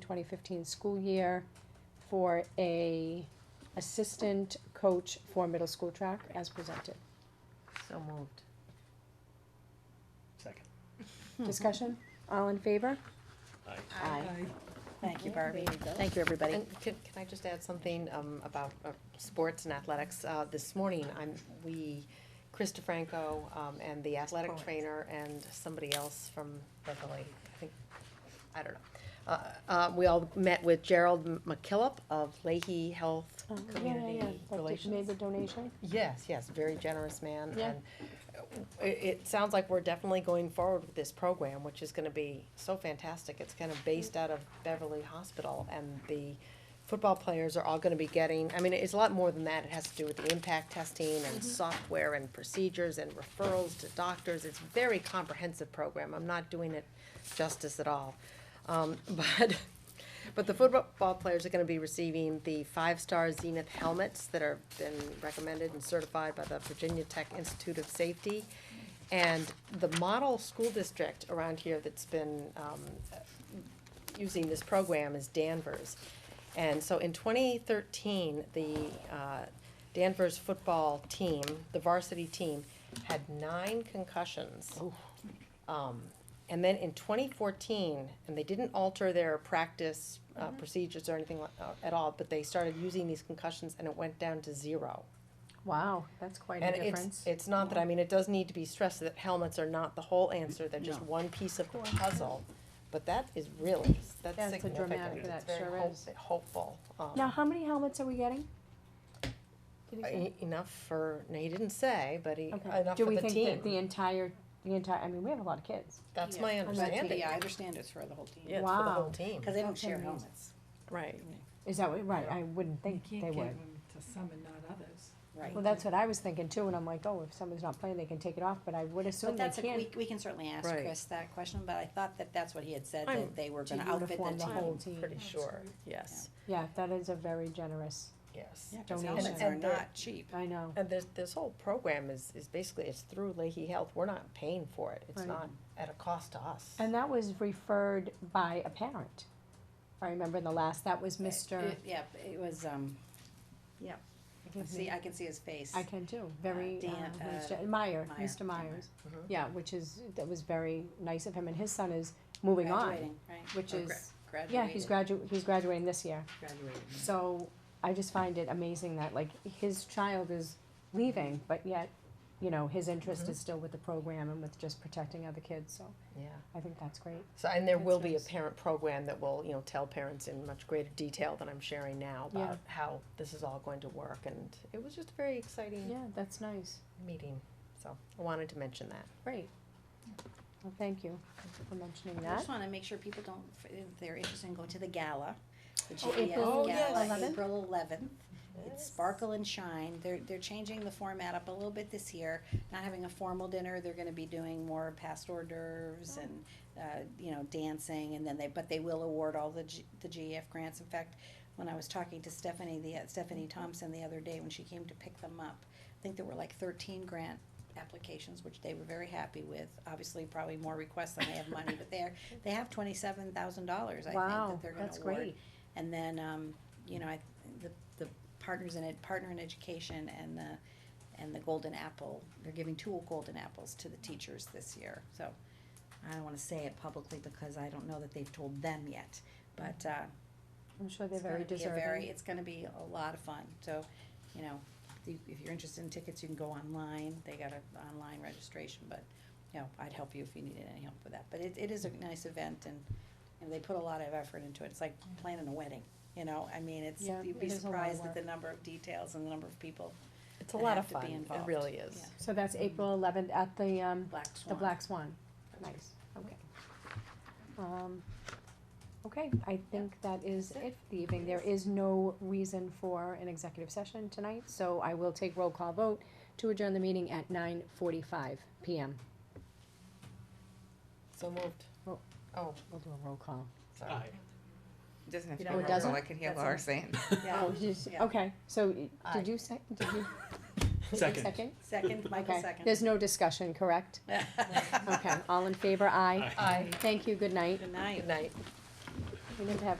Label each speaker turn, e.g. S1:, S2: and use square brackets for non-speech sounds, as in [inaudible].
S1: twenty fifteen school year for a assistant coach for middle school track as presented.
S2: So moved.
S3: Second.
S1: Discussion, all in favor?
S3: Aye.
S1: Hmm. Aye.
S4: Thank you,
S1: Yeah, there
S4: Barbie.
S1: you go. Thank you, everybody.
S2: And can, can I just add something, um, about, uh, sports and athletics? Uh, this morning, I'm, we, Chris DeFranco, um, and the athletic
S4: Sports.
S2: trainer and somebody else from Beverly, I think, I don't know. Uh, uh, we all met with Gerald McKillop of Leahy Health
S1: Oh, yeah, yeah, yeah.
S2: Community
S1: That did- Made
S2: Relations.
S1: the donation?
S2: Yes, yes, very generous man,
S1: Yeah.
S2: and uh, it, it sounds like we're definitely going forward with this program, which is gonna be so fantastic. It's kind of based out of Beverly Hospital, and the football players are all gonna be getting, I mean, it's a lot more than that. It has to do with the impact testing and software and procedures and referrals to doctors. It's a very comprehensive program. I'm not doing it justice at all. Um, [laughs] but, but the football players are gonna be receiving the five-star Zenith helmets that are been recommended and certified by the Virginia Tech Institute of Safety. And the model school district around here that's been, um, using this program is Danvers. And so in twenty thirteen, the uh, Danvers football team, the varsity team, had nine concussions. Um, and then in twenty fourteen, and they didn't alter their practice uh,
S1: Mm-hmm.
S2: procedures or anything like, uh, at all, but they started using these concussions and it went down to zero.
S1: Wow, that's quite a
S2: And it's,
S1: difference.
S2: it's not that, I mean, it does need to be stressed that helmets are not the whole answer, they're just one piece of the puzzle. But that is really, that's
S1: That's a
S2: significant,
S1: dramatic-
S2: it's
S1: that
S2: very
S1: sure
S2: hope-
S1: is.
S2: hopeful. um,
S1: Now, how many helmets are we getting? Do you think
S2: e- Enough for, no, he didn't say, but he,
S1: so? Okay.
S2: enough
S1: Do
S2: for
S1: we
S2: the
S1: think that the
S2: team,
S1: entire, the entire, I mean, we have a lot of kids.
S2: that's
S4: Yeah.
S2: my
S1: I'm not-
S2: understanding.
S4: Yeah, I understand it's for the whole team.
S2: Yeah, it's for the
S1: Wow.
S2: whole team,
S4: Cause they don't
S1: That's
S4: share
S1: amazing.
S4: helmets,
S2: right,
S1: Is that what, right, I wouldn't
S5: You
S1: think
S5: can't
S1: they
S5: give
S1: would.
S5: them to some and not others.
S4: right?
S1: Well, that's what I was thinking too, and I'm like, oh, if someone's not playing, they can take it off, but I would assume
S4: But
S1: they
S4: that's, a-
S1: can't.
S4: we, we can certainly ask
S2: Right.
S4: Chris that question, but I thought that that's what he had said,
S2: I'm-
S4: that they were
S1: to
S4: gonna outfit
S1: uniform
S4: the
S1: the whole
S4: team.
S1: team.
S2: pretty sure, yes,
S1: Yeah, that is a very generous,
S2: yes.
S4: Yeah, cause
S1: Donation.
S4: helmets are
S2: And they're-
S4: not cheap.
S1: I know.
S2: And this, this whole program is, is basically, it's through Leahy Health, we're not paying for it, it's
S1: Right.
S2: not at a cost to us.
S1: And that was referred by a parent. I remember in the last, that was Mr.,
S4: It- Yeah, it was, um, yeah, I can see, I can see his face.
S1: I can too, very,
S4: Dan-
S1: uh,
S4: uh,
S1: Mr. Meyer,
S4: Meyer,
S1: Mr.
S4: Dan Meyer.
S1: Myers.
S2: Mhm.
S1: Yeah, which is, that was very nice of him, and his son is moving on,
S4: Graduating, right?
S1: which
S4: Or
S1: is,
S4: gra-
S1: yeah, he's
S4: graduated.
S1: gradu, he's graduating this year.
S4: Graduating.
S1: So I just find it amazing that like his child is leaving, but yet, you know, his interest is still with the program and with just protecting other kids. So
S2: Yeah,
S1: I think that's great.
S2: so, and there
S1: That's
S2: will be a
S1: nice.
S2: parent program that will, you know, tell parents in much greater detail than I'm sharing now
S1: Yeah.
S2: about how this is all going to work, and it was just a very exciting
S1: Yeah, that's nice.
S2: meeting, so I wanted to mention that.
S1: Great. Well, thank you for mentioning
S4: I
S1: that.
S4: just wanna make sure people don't, if they're interested in going to the gala, the
S1: Oh, April
S4: GES
S1: Oh, yes.
S4: gala,
S1: 11th?
S4: April eleventh. It's Sparkle and Shine. They're, they're changing the format up a little bit this year, not having a formal dinner. They're gonna be doing more past hors d'oeuvres
S1: Oh.
S4: and, uh, you know, dancing and then they, but they will award all the G, the GEF grants. In fact, when I was talking to Stephanie, the, uh, Stephanie Thompson the other day, when she came to pick them up, I think there were like thirteen grant applications, which they were very happy with. Obviously, probably more requests than they have money, but they're, they have twenty-seven thousand dollars, I think,
S1: Wow,
S4: that they're gonna award.
S1: that's great.
S4: And then, um, you know, I, the, the partners in it, Partner in Education and the, and the Golden Apple, they're giving two Golden Apples to the teachers this year, so. I don't wanna say it publicly because I don't know that they've told them yet, but, uh,
S1: I'm sure they're
S4: it's
S1: very
S4: gonna be a very,
S1: deserving.
S4: it's gonna be a lot of fun, so, you know, if you- if you're interested in tickets, you can go online, they got a online registration, but, you know, I'd help you if you needed any help with that, but it, it is a nice event and, and they put a lot of effort into it, it's like planning a wedding, you know, I mean, it's,
S1: Yeah,
S4: you'd be
S1: it is a lot of
S4: surprised at the number of details and the number of people,
S2: It's a
S4: that
S2: lot of
S4: have
S2: fun,
S4: to be
S2: it
S4: involved.
S2: really is.
S4: Yeah.
S1: So that's April eleventh at the, um,
S4: Black
S1: the
S4: Swan.
S1: Black Swan. Nice, okay. Um, okay, I think that is it for the evening. There is no reason for an executive session tonight, so I will take roll call vote to adjourn the meeting at nine forty-five PM.
S2: So moved.
S1: Oh.
S2: Oh,
S1: We'll do a roll call.
S2: sorry.
S6: It doesn't have
S2: You
S6: to be
S2: don't
S6: roll
S1: remember?
S6: call. I can hear
S4: That's all.
S6: Laura saying.
S4: Yeah, Yeah.
S1: Okay, so y-
S2: Aye.
S1: did you say, did you?
S3: Second.
S1: Second?
S4: second, Michael
S1: Okay.
S4: second.
S1: There's no discussion, correct? Okay, all in favor, aye.
S2: Aye.
S1: Thank you, good night.
S4: [laughs] Good night.
S2: Good night.
S1: We didn't have